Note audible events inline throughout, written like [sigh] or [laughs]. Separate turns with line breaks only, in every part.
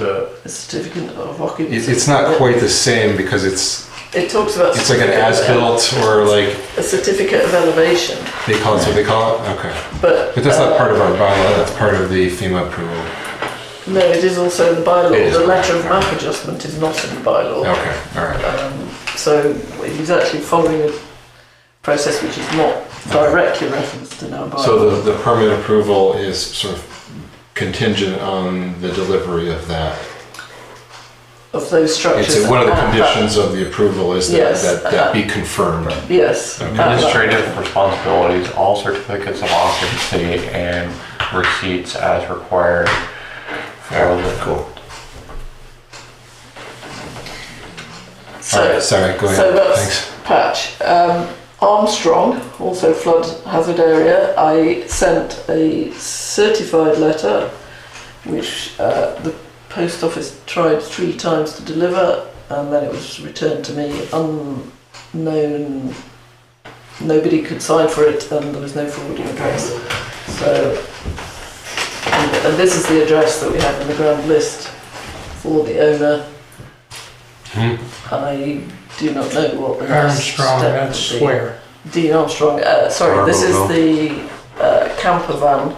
but
a certificate of occupancy.
it, it's not quite the same because it's
It talks about.
it's like an
certificate of ele-
as-built or like
A certificate of elevation,
they call it what they call it. Okay,
but.
but that's
uh,
not part of our bylaw. That's part of the FEMA approval.
uh, No, it is also in the
It
bylaw,
is.
the letter of map adjustment is not in the bylaw.
Okay, all right.
Um, So he's actually following a process which is not directly referenced in our bylaw.
So the, the permit approval is sort of contingent on the delivery of that.
Of those structures.
It's one of the
at that-
conditions of the approval is that
uh, Yes, uh,
that, that be confirmed.
Yes. at that-
Administrative responsibilities, all certificates of occupancy and receipts as required. for the-
Cool. All
So,
right, sorry, go
so
ahead.
that's-
Thanks.
patch. Um, Armstrong, also flood hazard area, I sent a certified letter which uh, the post office tried three times to deliver and then it was returned to me unknown. Nobody could sign for it and there was no forwarding address. So, and, and this is the address that we have in the ground list for the owner.
Hmm.
I do not know what the next
Armstrong,
step
that's
would be.
where?
Dean Armstrong. Uh, sorry, this is
Arbuckle.
the uh, camper van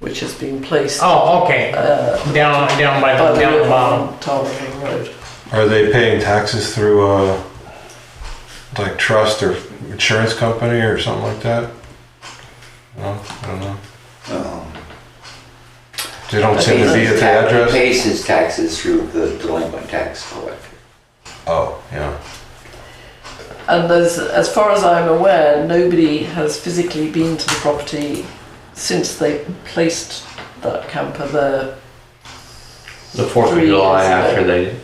which has been placed
Oh, okay,
uh,
down, down by
by
the,
the
down the
river
bottom.
on Tarling Road.
Are they paying taxes through a like trust or insurance company or something like that? No, I don't know.
Um,
They don't seem to be at the
ta-
address.
Pays his taxes through the delinquent tax collector.
Oh, yeah.
And there's, as far as I'm aware, nobody has physically been to the property since they placed that camper there.
The Fourth of
Three
July
years
after
ago.
they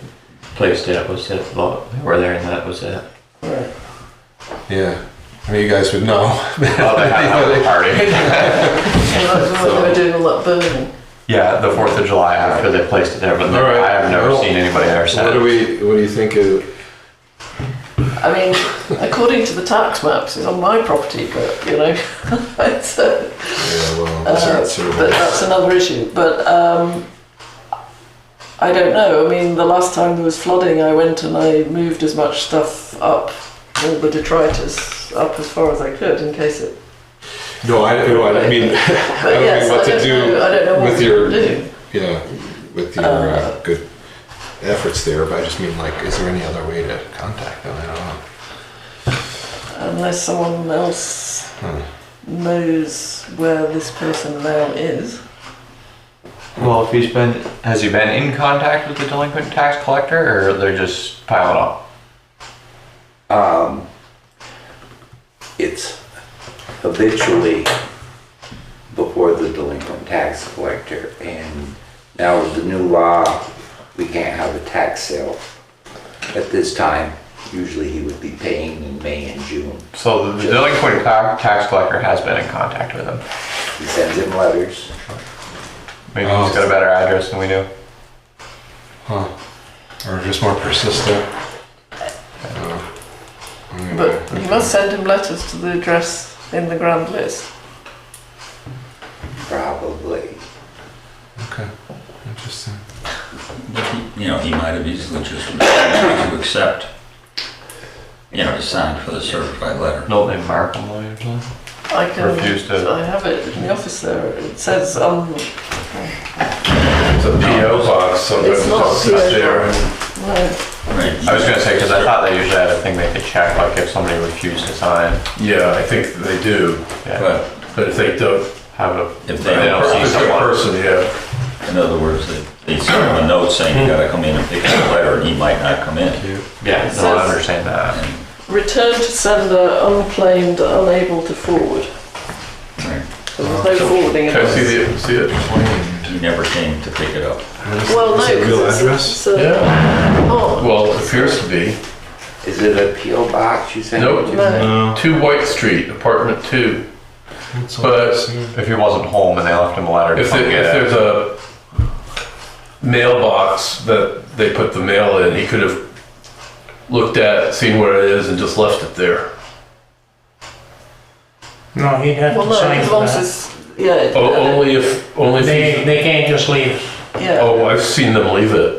placed it was it, well, they were there and that was it.
Right.
Yeah. I mean, you guys would know.
Oh, [laughs] they had another party.
Well, that's when they were doing all that burning.
Yeah, the Fourth of July after they placed it there, but
All right.
I have never
Well,
seen anybody there
What do
since.
we, what do you think of,
I mean, according to the tax maps, it's on my property, but you know, [laughs] it's, uh,
yeah, well,
Uh,
that's not sort of
But that's another issue. But um, I don't know. I mean, the last time there was flooding, I went and I moved as much stuff up, all the detritus up as far as I could in case it.
No, I, no, I mean, [laughs] I
[laughs] But
don't
yes,
know what
I
to
don't know. I
do,
don't know what
with
we
your-
can do.
yeah, with your uh, good efforts there, but I just mean like, is there any other way to contact them? I don't know.
unless someone else
Hmm.
knows where this person now is.
Well, if he's been, has he been in contact with the delinquent tax collector or they're just piling up?
Um, it's habitually before the delinquent tax collector. And now with the new law, we can't have a tax sale at this time. Usually he would be paying in May and June.
So the delinquent ta- tax collector has been in contact with him.
He sends him letters.
Maybe
Oh.
he's got a better address than we do.
Huh. Or just more persistent? Uh, anyway.
But you must send him letters to the address in the grand list.
Probably.
Okay, interesting.
But he, you know, he might have easily just refused to accept, you know, to sign for the certified letter.
Don't they mark him later? or something?
I can.
Refuse to-
I have it in the office there. It says um.
It's a PO box, somebody
It's not
just
PO
sits there and
no,
Right.
I was gonna say, because I thought they usually had a thing they could check, like if somebody refused to sign,
Yeah, I think they do,
yeah,
But
but if they don't,
have a,
if
they
they
Yeah.
don't,
don't see
see
the
someone.
person, yeah.
in other words, they, they send him a note saying you gotta come in and pick up the letter, and he might not come in.
yeah, no, I understand that.
Return to sender unclaimed, unable to forward.
Right.
So There's no forwarding
Can I see
address.
the, see it?
He never came to pick it up.
Well, no,
Is it a real
because it's,
address?
it's a,
Yeah,
oh,
well, it appears to be.
Is it a PO box you send?
Nope.
him to?
no.
Two White Street, apartment two. But
If he wasn't home and they left him a letter to
if,
come
it- if
get it,
there's a mailbox that they put the mail in, he could have looked at, it, seen where it is and just left it there.
No, he'd have
Well,
to
no,
sign
as
for
long
that.
as, yeah. it-
O- Oh, Only if, only if,
They,
he-
they can't just leave
yeah.
Oh, I've seen them leave it.